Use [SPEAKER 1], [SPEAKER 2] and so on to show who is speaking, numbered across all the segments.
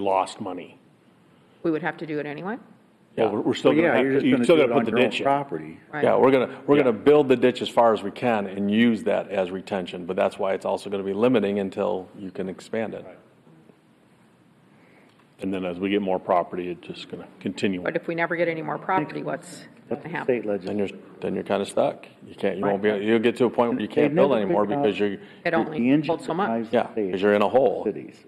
[SPEAKER 1] lost money.
[SPEAKER 2] We would have to do it anyway?
[SPEAKER 1] Yeah, we're we're still
[SPEAKER 3] Well,
[SPEAKER 1] gonna
[SPEAKER 3] yeah,
[SPEAKER 1] have,
[SPEAKER 3] you're
[SPEAKER 1] to-
[SPEAKER 3] just
[SPEAKER 1] you
[SPEAKER 3] going to
[SPEAKER 1] still
[SPEAKER 3] do
[SPEAKER 1] gotta
[SPEAKER 3] it
[SPEAKER 1] put
[SPEAKER 3] on
[SPEAKER 1] the
[SPEAKER 3] your own
[SPEAKER 1] ditch in.
[SPEAKER 3] property.
[SPEAKER 2] Right.
[SPEAKER 4] Yeah, we're gonna, we're gonna build the ditch as far as we can and use that as retention, but that's why it's also gonna be limiting until you can expand it.
[SPEAKER 1] And then as we get more property, it's just gonna continue.
[SPEAKER 2] But if we never get any more property, what's going to
[SPEAKER 3] That's the
[SPEAKER 2] happen?
[SPEAKER 3] state
[SPEAKER 4] Then
[SPEAKER 3] legislature.
[SPEAKER 4] you're, then you're kinda stuck. You can't, you won't be, you'll get to a point where you can't
[SPEAKER 3] They've
[SPEAKER 4] build
[SPEAKER 3] never
[SPEAKER 4] anymore
[SPEAKER 3] figured out-
[SPEAKER 4] because you're,
[SPEAKER 2] It only holds so much.
[SPEAKER 4] yeah, because you're in a hole.
[SPEAKER 3] Cities.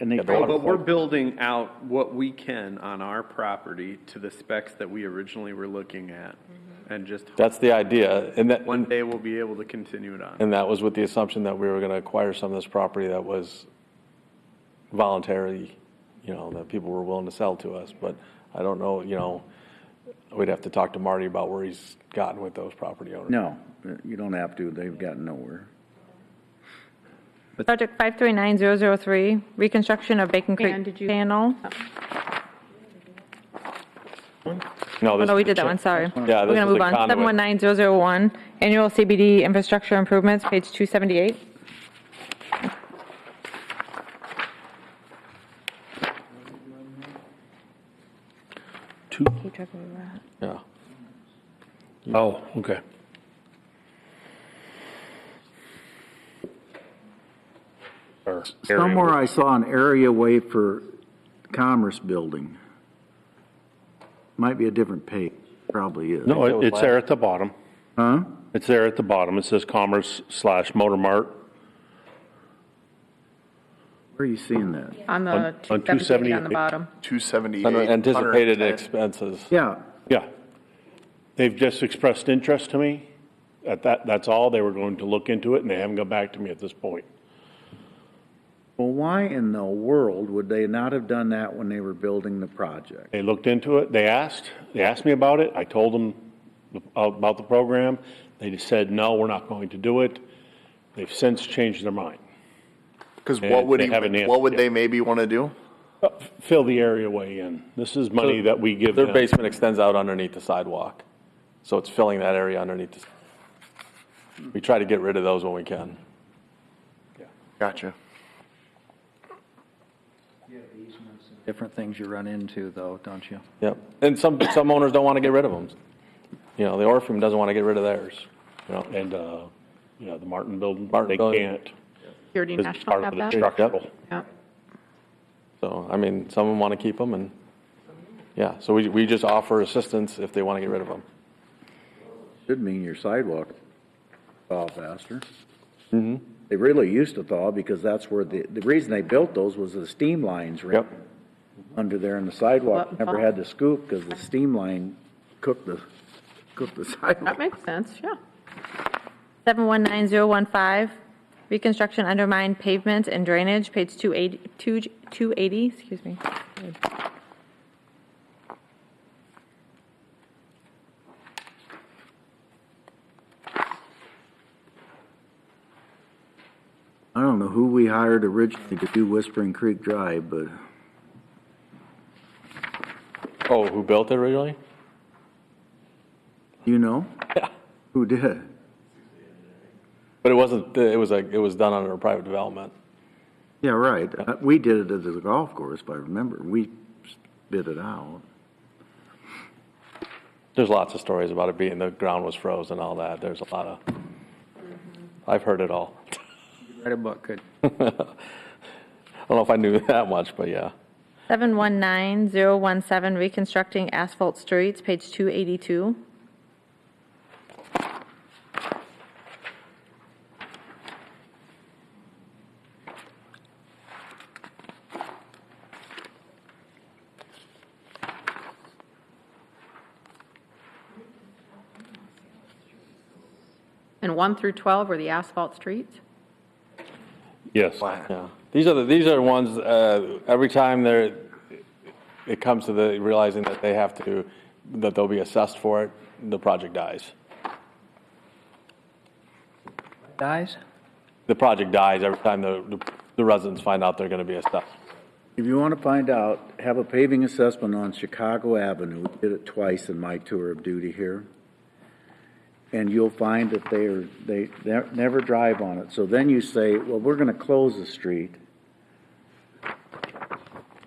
[SPEAKER 3] And they.
[SPEAKER 4] Yeah, the
[SPEAKER 3] try to
[SPEAKER 4] water-
[SPEAKER 5] But we're
[SPEAKER 3] fight-
[SPEAKER 5] building out what we can on our property to the specs that we originally were looking at. And just,
[SPEAKER 4] That's the idea, and that,
[SPEAKER 5] one day we'll be able to continue it on.
[SPEAKER 4] and that was with the assumption that we were gonna acquire some of this property that was voluntary, you know, that people were willing to sell to us, but I don't know, you know, we'd have to talk to Marty about where he's gotten with those property owners.
[SPEAKER 3] No, you don't have to. They've gotten nowhere.
[SPEAKER 6] Project 539003, reconstruction of Bacon
[SPEAKER 2] Ann,
[SPEAKER 6] Creek
[SPEAKER 2] did you-
[SPEAKER 6] Channel.
[SPEAKER 4] No,
[SPEAKER 6] Oh,
[SPEAKER 4] this
[SPEAKER 6] no,
[SPEAKER 4] is
[SPEAKER 6] we
[SPEAKER 4] the
[SPEAKER 6] did that
[SPEAKER 4] cha-
[SPEAKER 6] one, sorry.
[SPEAKER 4] Yeah,
[SPEAKER 6] We're
[SPEAKER 4] this
[SPEAKER 6] going
[SPEAKER 4] is
[SPEAKER 6] to
[SPEAKER 4] the
[SPEAKER 6] move on.
[SPEAKER 4] conduit.
[SPEAKER 6] 719001, annual CBD infrastructure improvements, page 278.
[SPEAKER 1] Two-
[SPEAKER 6] Keep track of where we're at.
[SPEAKER 4] Yeah.
[SPEAKER 1] Oh, okay. Or-
[SPEAKER 3] Somewhere I saw an area way for commerce building. Might be a different page, probably is.
[SPEAKER 1] No,
[SPEAKER 4] that
[SPEAKER 1] it-
[SPEAKER 4] was
[SPEAKER 1] it's there at the bottom.
[SPEAKER 3] Huh?
[SPEAKER 1] It's there at the bottom. It says Commerce slash Motor Mart
[SPEAKER 3] Where are you seeing that?
[SPEAKER 2] On
[SPEAKER 1] on
[SPEAKER 2] the
[SPEAKER 1] on
[SPEAKER 2] 278 on the
[SPEAKER 1] 278.
[SPEAKER 2] bottom.
[SPEAKER 7] 278.
[SPEAKER 4] Anticipated
[SPEAKER 7] 110.
[SPEAKER 4] expenses.
[SPEAKER 3] Yeah,
[SPEAKER 1] Yeah. They've just expressed interest to me. At that, that's all. They were going to look into it and they haven't got back to me at this point.
[SPEAKER 3] well, why in the world would they not have done that when they were building the project?
[SPEAKER 1] They looked into it, they asked, they asked me about it, I told them about the program. They just said, no, we're not going to do it. They've since changed their mind.
[SPEAKER 7] Because
[SPEAKER 1] Yeah,
[SPEAKER 7] what would,
[SPEAKER 1] they
[SPEAKER 7] he-
[SPEAKER 1] haven't answered
[SPEAKER 7] what would
[SPEAKER 1] yet.
[SPEAKER 7] they maybe want to do?
[SPEAKER 1] Fill the area way in. This is money that we give
[SPEAKER 4] Their
[SPEAKER 1] them.
[SPEAKER 4] basement extends out underneath the sidewalk, so it's filling that area underneath. the- We try to get rid of those when we can.
[SPEAKER 7] Gotcha.
[SPEAKER 8] different things you run into though, don't you?
[SPEAKER 4] Yep. And some, some owners don't want to get rid of them. You know, the Orpheum doesn't want to get rid of theirs, you know.
[SPEAKER 1] And, uh, you know, the Martin building,
[SPEAKER 4] Martin
[SPEAKER 1] they
[SPEAKER 4] building.
[SPEAKER 1] can't.
[SPEAKER 2] Security
[SPEAKER 1] It's
[SPEAKER 2] National
[SPEAKER 1] part of
[SPEAKER 2] have
[SPEAKER 1] the
[SPEAKER 2] that?
[SPEAKER 1] structural.
[SPEAKER 2] Yeah.
[SPEAKER 4] So, I mean, some of them want to keep them and, yeah, so we, we just offer assistance if they want to get rid of them.
[SPEAKER 3] Should mean your sidewalk thaw faster. They really used to thaw because that's where the, the reason they built those was the steam lines ran
[SPEAKER 4] Yep.
[SPEAKER 3] under there and the sidewalk
[SPEAKER 2] What
[SPEAKER 3] never
[SPEAKER 2] thaw?
[SPEAKER 3] had to scoop because the steam line cooked the, cooked the
[SPEAKER 2] That
[SPEAKER 3] sidewalk.
[SPEAKER 2] makes sense, yeah.
[SPEAKER 6] 719015, reconstruction undermined pavement and drainage, page 280, 280, excuse me.
[SPEAKER 3] I don't know who we hired originally to do Whispering Creek Drive, but
[SPEAKER 4] Oh, who built it originally?
[SPEAKER 3] you know,
[SPEAKER 4] Yeah.
[SPEAKER 3] who did?
[SPEAKER 4] But it wasn't, it was like, it was done under a private development.
[SPEAKER 3] Yeah, right. Uh, We did it at the golf course, if I remember. We bid it out.
[SPEAKER 4] There's lots of stories about it being, the ground was froze and all that. There's a lot of, I've heard it all.
[SPEAKER 8] Write a book, could
[SPEAKER 4] I don't know if I knew that much, but yeah.
[SPEAKER 6] 719017, reconstructing asphalt streets, page 282.
[SPEAKER 2] And 1 through 12 are the asphalt streets?
[SPEAKER 1] Yes.
[SPEAKER 4] Yeah, these are the, these are ones, uh, every time they're, it comes to the, realizing that they have to, that they'll be assessed for it, the project dies.
[SPEAKER 8] dies?
[SPEAKER 4] The project dies every time the, the residents find out they're gonna be assessed.
[SPEAKER 3] If you want to find out, have a paving assessment on Chicago Avenue. We did it twice in my tour of duty here. And you'll find that they are, they ne- never drive on it. So then you say, well, we're going to close the street.